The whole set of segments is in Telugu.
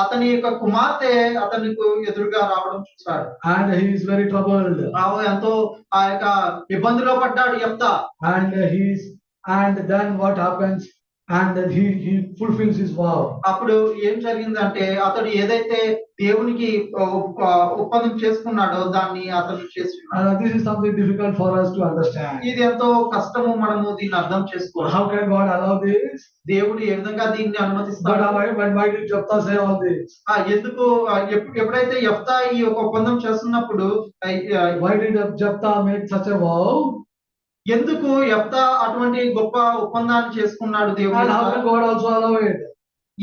అతని యొక్క కుమార్తె అతనికి ఎదురుగా రావడం చూశాడు and he is very troubled రావు ఎంతో ఆ యొక్క ఇబ్బందిలో పడ్డాడు యెఫ్తా and he is and then what happens and then he he fulfills his vow అప్పుడు ఏం జరిగిందంటే అతడు ఏదైతే దేవునికి ఒప్ప- ఒప్పందం చేసుకున్నాడో దాన్ని అతను చేసుకున్నాడు and this is something difficult for us to understand ఇది ఎంతో కష్టము మనము దీన్ని అర్థం చేసుకోవాలి how can god allow this దేవుడు ఏ విధంగా దీన్ని but అనుమతిస్తాడు why, but why did japta say all this ఆ, ఎందుకు ఆ, ఎప్- ఎప్పుడైతే యెఫ్తా ఈ యొక్క ఒప్పందం చేస్తున్నప్పుడు ఆ, ఆ, why did japta make such a vow ఎందుకు యెఫ్తా అటువంటి గొప్ప ఒప్పందాన్ని చేసుకున్నాడు and how can దేవుడు god also allow it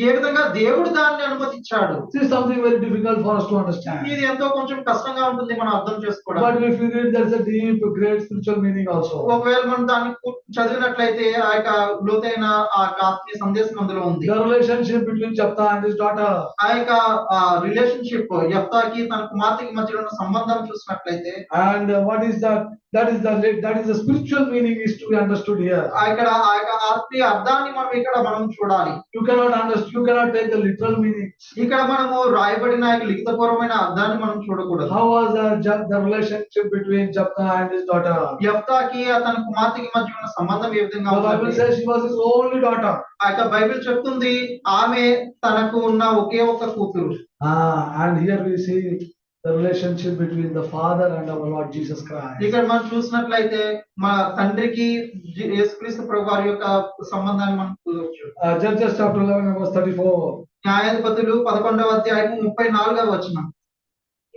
ఏ విధంగా దేవుడు దాన్ని అనుమతించాడు this is something very difficult for us to understand ఇది ఎంతో కొంచెం కష్టంగా ఉంటుంది మనం అర్థం చేసుకోవడం but if you read there's a deep great spiritual meaning also ఒకవేళ మనం దాన్ని పూర్తి చదివినట్లయితే ఆ యొక్క లోతైన ఆ యొక్క ఆత్మీయ సందేశం అందులో ఉంది the relationship between japta and his daughter ఆ యొక్క రిలేషన్షిప్ యప్తాకి తన కుమార్తెకి మధ్యలో ఉన్న సంబంధం చూసినట్లయితే and uh, what is that that is the that is the spiritual meaning is to be understood here ఆ ఇక్కడ ఆ యొక్క ఆత్మీయ అర్థాన్ని మనం ఇక్కడ మనం చూడాలి you cannot understand you cannot take the literal meaning ఇక్కడ మనము రాయబడిన ఆ యొక్క లిఖితపూర్వమైన అర్థాన్ని మనం చూడకూడదు how was the, Ja- the relationship between japta and his daughter యప్తాకి తన కుమార్తెకి మధ్య ఉన్న సంబంధం ఏ the విధంగా bible ఉంటుంది says she was his only daughter ఆ యొక్క బైబిల్ చెప్తుంది ఆమె తనకు ఉన్న ఒకే ఒక కూతురు ah, and here we see the relationship between the father and our lord jesus christ ఇక్కడ మనం చూసినట్లయితే మా తండ్రికి జీ- యేసుక్రీస్తు ప్రభు వారి యొక్క సంబంధాన్ని మనం చూడవచ్చు uh, judges chapter 11 verse 34 న్యాయాధిపతులు పదకొండవ అధ్యాయం ముప్పై నాలుగవ వచనం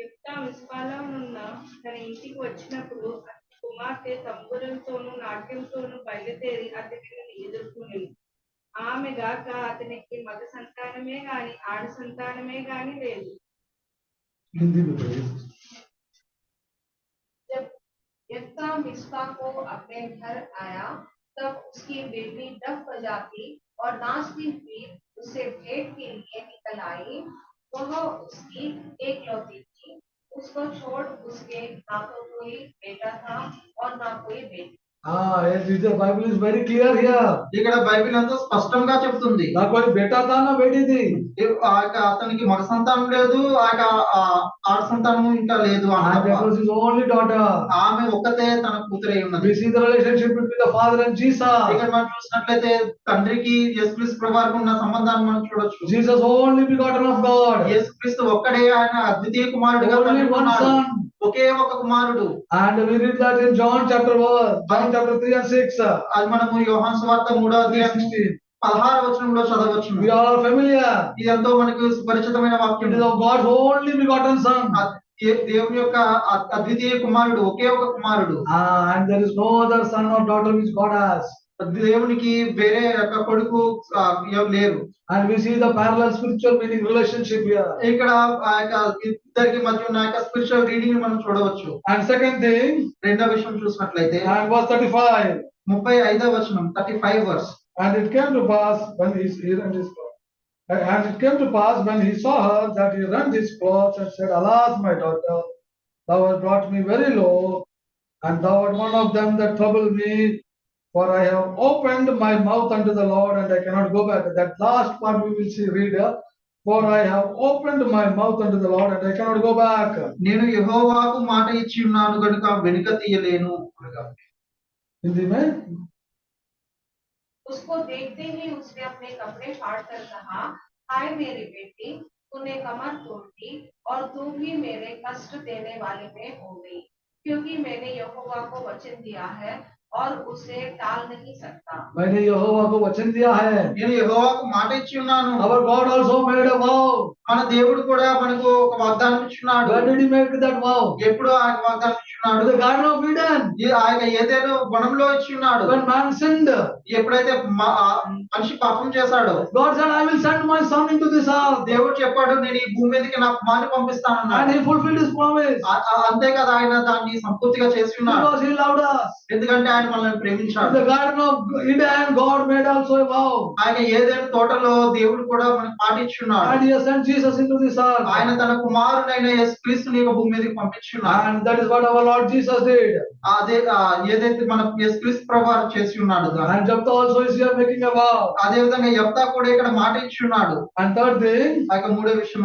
యుక్త విశ్వాలో నున్న తన ఇంటికి వచ్చినప్పుడు అతని కుమార్తె తంబురంతోనూ నాట్యంతోనూ బయలుదేరి అతనిని ఎదుర్కొనింది ఆమె గాక అతనికి మగ సంతానమే గాని ఆడ సంతానమే గాని లేదు hindi mein praise जब यत्ता मिस्पा को अपने घर आया तब उसकी बेटी डफ बजाती और नाचती हुई उससे भेंट के लिए निकल आई वह उसकी एकलौती थी उसको छोड़ उसके ना तो कोई बेटा था और ना कोई बेटी ah yes the bible is very clear here ఇక్కడ బైబిల్ ఎంతో స్పష్టంగా చెప్తుంది na koi beta tha na beti thi ఏ- ఆ యొక్క అతనికి మగ సంతానం లేదు ఆ యొక్క ఆ ఆడ సంతానము ఇంకా లేదు అని and తప్ప. that was his only daughter ఆమె ఒక్కతే తన కూతురై ఉన్నది We see the relationship between the father and Jesus. ఇక్కడ మనం చూసినట్లయితే తండ్రికి యేసుక్రీస్తు ప్రభు వారికి ఉన్న సంబంధాన్ని మనం చూడొచ్చు Jesus only begotten of God, యేసుక్రీస్తు ఒక్కడే ఆయన అద్వితీయ కుమారుడుగా only తండ్రి one ఉన్నాడు. son. ఒకే ఒక కుమారుడు And we read that in John chapter one, John chapter three and six, uh, అది మనము యోహాన్ సువార్త మూడో three అధ్యాయం sixteen. పదహార వచనంలో చదవచ్చు We all are familiar. ఇది ఎంతో మనకు పరిచితమైన వాక్యం It is of God's only begotten son. ఆ దే- దేవుని యొక్క అ- అద్వితీయ కుమారుడు ఒకే ఒక కుమారుడు Ah, and there is no other son or daughter which God has. దేవునికి వేరే యొక్క కొడుకు ఆ, ఎవరు లేరు And we see the parallel spiritual meaning relationship here. ఇక్కడ ఆ యొక్క ఇద్దరికి మధ్య ఉన్న యొక్క స్పిరిచువల్ రీడింగ్ మనం చూడవచ్చు And second thing, రెండో విషయం చూసినట్లయితే and verse thirty-five, ముప్పై ఐదవ వచనం thirty five verse And it came to pass when he he rent his clothes. And it came to pass when he saw her that he rent his clothes and said, Alas, my daughter, thou hast brought me very low, and thou art one of them that trouble me. For I have opened my mouth unto the Lord, and I cannot go back. That last part we will see read here. For I have opened my mouth unto the Lord, and I cannot go back. నేను యెహోవాకు మాట ఇచ్చి ఉన్నాను గనుక వెనుక తీయలేను అనగా. Hindi mein? उसको देखते ही उसने अपने कपड़े फाड़ कर कहा हाय मेरी बेटी तूने कमर तोड़ दी और तू भी मेरे कष्ट देने वाले में हो गई क्योंकि मैंने यहोवा को वचन दिया है और उसे टाल नहीं सकता मैंने यहोवा को वचन दिया है నేను యెహోవాకు మాట ఇచ్చి ఉన్నాను Our God also made a vow. మన దేవుడు కూడా మనకు ఒక వాగ్దానం ఇచ్చున్నాడు When did he make that vow? ఎప్పుడు ఆ యొక్క వాగ్దానం To ఇచ్చున్నాడు the Garden of Eden. ఈ- ఆ యొక్క ఏదేదో వనంలో ఇచ్చున్నాడు When man sinned, God ఎప్పుడైతే మ- ఆ మనిషి పాపం చేశాడో said, I will send my son into this earth. దేవుడు చెప్పాడు నేను ఈ భూమి మీదకి నా కుమారుని And పంపిస్తానన్నాడు he fulfilled his promise ఆ- ఆ- అంతే కదా ఆయన దాన్ని సంపూర్తిగా చేస్తున్నాడు because he loved us. ఎందుకంటే ఆయన మనల్ని In ప్రేమించాడు the Garden of Eden, God made also a vow. ఆయన ఏదైనా తోటలో దేవుడు కూడా మనకు And పాటించున్నాడు he has sent Jesus into this earth. ఆయన తన కుమారుడైన యేసు క్రీస్తుని యొక్క భూమి మీదకి పంపించున్నాడు And that is what our Lord Jesus did. అదే ఆ, ఏదైతే మన యేసు క్రీస్తు ప్రభు వారు చేసి ఉన్నాడు And Japta also is here making a vow. అదే విధంగా యప్తా కూడా ఇక్కడ మాట ఇచ్చి ఉన్నాడు And third thing, ఆ యొక్క మూడో విషయం